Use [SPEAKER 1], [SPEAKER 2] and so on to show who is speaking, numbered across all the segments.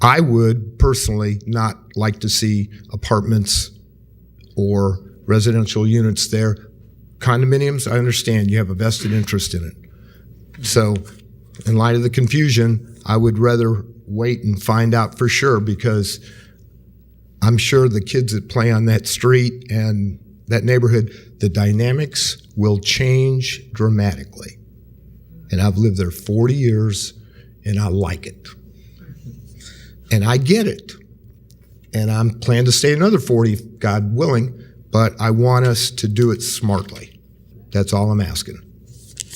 [SPEAKER 1] I would personally not like to see apartments or residential units there. Condominiums, I understand you have a vested interest in it. So, in light of the confusion, I would rather wait and find out for sure because I'm sure the kids that play on that street and that neighborhood, the dynamics will change dramatically. And I've lived there 40 years and I like it. And I get it. And I'm planning to stay another 40, God willing, but I want us to do it smartly. That's all I'm asking.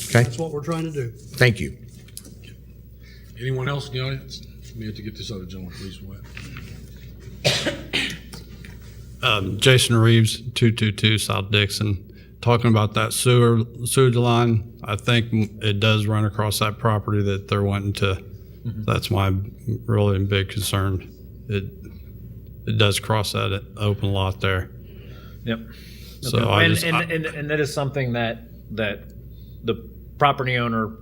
[SPEAKER 1] Okay?
[SPEAKER 2] That's what we're trying to do.
[SPEAKER 1] Thank you.
[SPEAKER 3] Anyone else in the audience? We have to get this other gentleman, please. Wait.
[SPEAKER 4] Um, Jason Reeves, 222 South Dixon. Talking about that sewer, sewage line, I think it does run across that property that they're wanting to,
[SPEAKER 5] Mm-hmm.
[SPEAKER 4] that's my really big concern. It, it does cross that open lot there.
[SPEAKER 5] Yep.
[SPEAKER 4] So I
[SPEAKER 5] and,
[SPEAKER 4] just,
[SPEAKER 5] and,
[SPEAKER 4] I-
[SPEAKER 5] and and that is something that that the property owner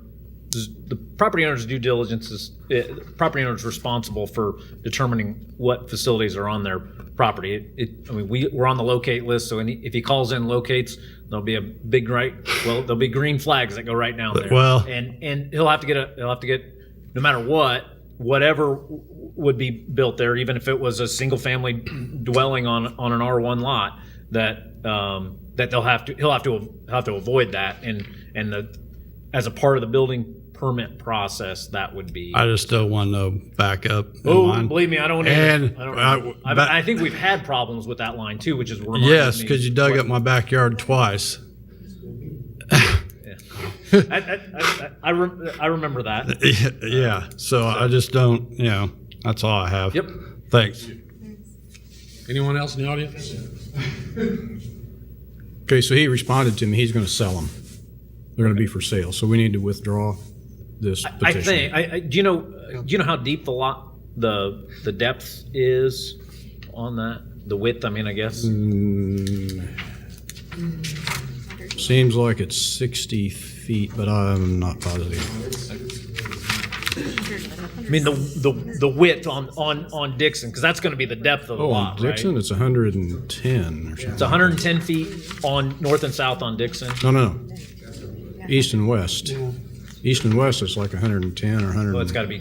[SPEAKER 5] the property owner's due diligence is eh, the property owner's responsible for determining what facilities are on their property. It, it, I mean, we we're on the locate list, so any, if he calls in locates, there'll be a big right. Well, there'll be green flags that go right down there.
[SPEAKER 4] Well-
[SPEAKER 5] and and he'll have to get a he'll have to get no matter what whatever w- would be built there, even if it was a single family dwelling on on an R one lot that um, that they'll have to he'll have to have to avoid that and and the as a part of the building permit process that would be.
[SPEAKER 4] I just don't want no backup. in
[SPEAKER 5] Oh,
[SPEAKER 4] line.
[SPEAKER 5] believe me, I don't.
[SPEAKER 4] And
[SPEAKER 5] I, don't,
[SPEAKER 4] I-
[SPEAKER 5] I,
[SPEAKER 4] but-
[SPEAKER 5] I think we've had problems with that line too, which is reminded
[SPEAKER 4] Yes,
[SPEAKER 5] me-
[SPEAKER 4] because you dug up my backyard twice.
[SPEAKER 5] I, I, I, I, re- I remember that.
[SPEAKER 4] Yeah, so I just don't, you know, that's all I have.
[SPEAKER 5] Yep.
[SPEAKER 4] Thanks.
[SPEAKER 3] Anyone else in the audience?
[SPEAKER 6] Okay, so he responded to me, he's going to sell them. They're going to be for sale, so we need to withdraw this
[SPEAKER 5] I
[SPEAKER 6] petition.
[SPEAKER 5] think. I, I, do you know? Do you know how deep the lot the the depth is on that? The width. I mean, I guess.
[SPEAKER 6] Mm. Seems like it's 60 feet, but I'm not positive.
[SPEAKER 5] I mean the the the width on on on Dixon because that's going to be the depth of the
[SPEAKER 6] Oh, on
[SPEAKER 5] lot,
[SPEAKER 6] Dixon,
[SPEAKER 5] right?
[SPEAKER 6] it's 110 or
[SPEAKER 5] It's
[SPEAKER 6] something.
[SPEAKER 5] 110 feet on north and south on Dixon.
[SPEAKER 6] No, no, no. East and west. East and west is like 110 or 100.
[SPEAKER 5] Well, it's got to be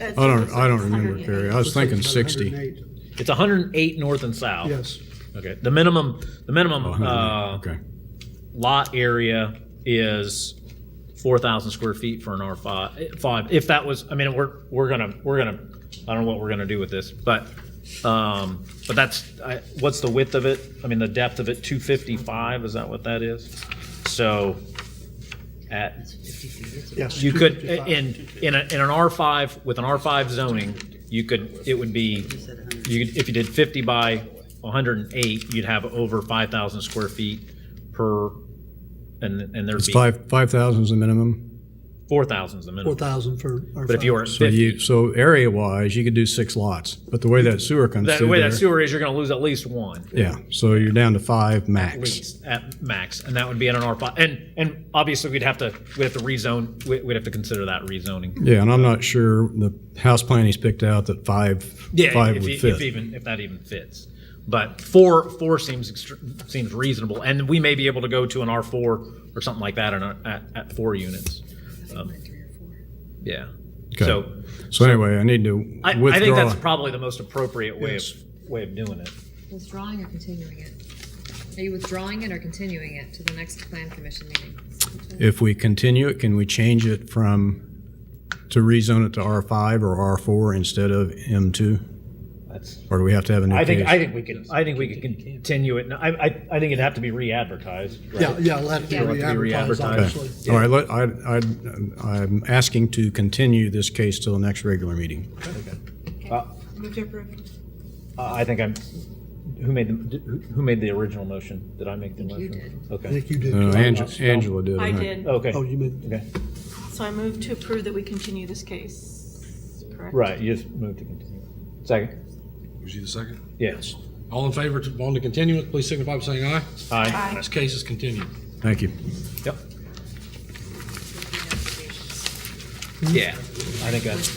[SPEAKER 6] I don't, I don't remember, Perry. I was thinking 60.
[SPEAKER 5] It's 108 north and south.
[SPEAKER 2] Yes.
[SPEAKER 5] Okay. The minimum, the
[SPEAKER 6] Oh,
[SPEAKER 5] minimum uh,
[SPEAKER 6] 108, Okay.
[SPEAKER 5] lot area is 4,000 square feet for an R five. Five. If that was, I mean, we're we're gonna we're gonna, I don't know what we're gonna do with this, but, um, but that's I, what's the width of it? I mean, the depth of it, 255. Is that what that is? So, at
[SPEAKER 2] Yes.
[SPEAKER 5] you could, eh, in, in, a, in an R5, with an R5 zoning, you could, it would be, you, could- if you did 50 by 108, you'd have over 5,000 square feet per, and, and there'd
[SPEAKER 6] It's
[SPEAKER 5] be
[SPEAKER 6] five, 5,000 is the minimum.
[SPEAKER 5] 4,000 is the
[SPEAKER 2] Four
[SPEAKER 5] minimum.
[SPEAKER 2] thousand for. our
[SPEAKER 5] But if you were at
[SPEAKER 6] So
[SPEAKER 5] 50,
[SPEAKER 6] you, so area-wise, you could do six lots, but the way that sewer comes
[SPEAKER 5] the
[SPEAKER 6] through
[SPEAKER 5] way
[SPEAKER 6] there.
[SPEAKER 5] that sewer is, you're gonna lose at least one,
[SPEAKER 6] Yeah, so you're down to five
[SPEAKER 5] at
[SPEAKER 6] max.
[SPEAKER 5] least, at max, and that would be in an R5. And, and obviously, we'd have to, we'd have to rezone, we- we'd have to consider that rezoning.
[SPEAKER 6] Yeah, and I'm not sure the house plan he's picked out that five,
[SPEAKER 5] Yeah,
[SPEAKER 6] five
[SPEAKER 5] if,
[SPEAKER 6] would
[SPEAKER 5] if, if
[SPEAKER 6] fit.
[SPEAKER 5] even, if that even fits. But four, four seems, extr- seems reasonable, and we may be able to go to an R four or something like that in a, at, at four units. Um, Yeah,
[SPEAKER 6] Okay.
[SPEAKER 5] so
[SPEAKER 6] So anyway, I need to
[SPEAKER 5] I, I think
[SPEAKER 6] withdraw.
[SPEAKER 5] that's probably the most appropriate way of,
[SPEAKER 6] Yes.
[SPEAKER 5] way of doing it.
[SPEAKER 7] Withdrawing or continuing it? Are you withdrawing it or continuing it to the next plan commission meeting?
[SPEAKER 6] If we continue it, can we change it from, to rezone it to R5 or R4 instead of M2?
[SPEAKER 5] That's,
[SPEAKER 6] Or do we have to have a new
[SPEAKER 5] I
[SPEAKER 6] case?
[SPEAKER 5] think, I think we could, I think we could continue it, and I, I, I think it'd have to be re-advertised, right?
[SPEAKER 2] Yeah, yeah, let it
[SPEAKER 7] Yeah.
[SPEAKER 2] be advertised,
[SPEAKER 5] re-advertised.
[SPEAKER 2] obviously.
[SPEAKER 6] Okay. All right, let- I, I, I'm asking to continue this case till the next regular meeting.
[SPEAKER 8] Move to approve.
[SPEAKER 5] Uh, I think I'm, who made the, who- who made the original motion? Did I make the motion?
[SPEAKER 7] you
[SPEAKER 2] I
[SPEAKER 5] Okay,
[SPEAKER 2] think you did.
[SPEAKER 6] No,
[SPEAKER 2] too.
[SPEAKER 6] Uh, Angela, Angela did.
[SPEAKER 8] I
[SPEAKER 6] think.
[SPEAKER 8] did.
[SPEAKER 5] okay,
[SPEAKER 2] Oh, you meant,
[SPEAKER 5] okay,
[SPEAKER 8] So I move to approve that we continue this case, correct?
[SPEAKER 5] right, you just moved to continue. Second?
[SPEAKER 3] Was you the second?
[SPEAKER 5] Yes.
[SPEAKER 3] All in favor to, on the continuance, please signify by saying aye.
[SPEAKER 5] Aye.
[SPEAKER 8] Aye.
[SPEAKER 3] This case is continued.
[SPEAKER 6] Thank you.
[SPEAKER 5] Yep. Yeah, I think that's.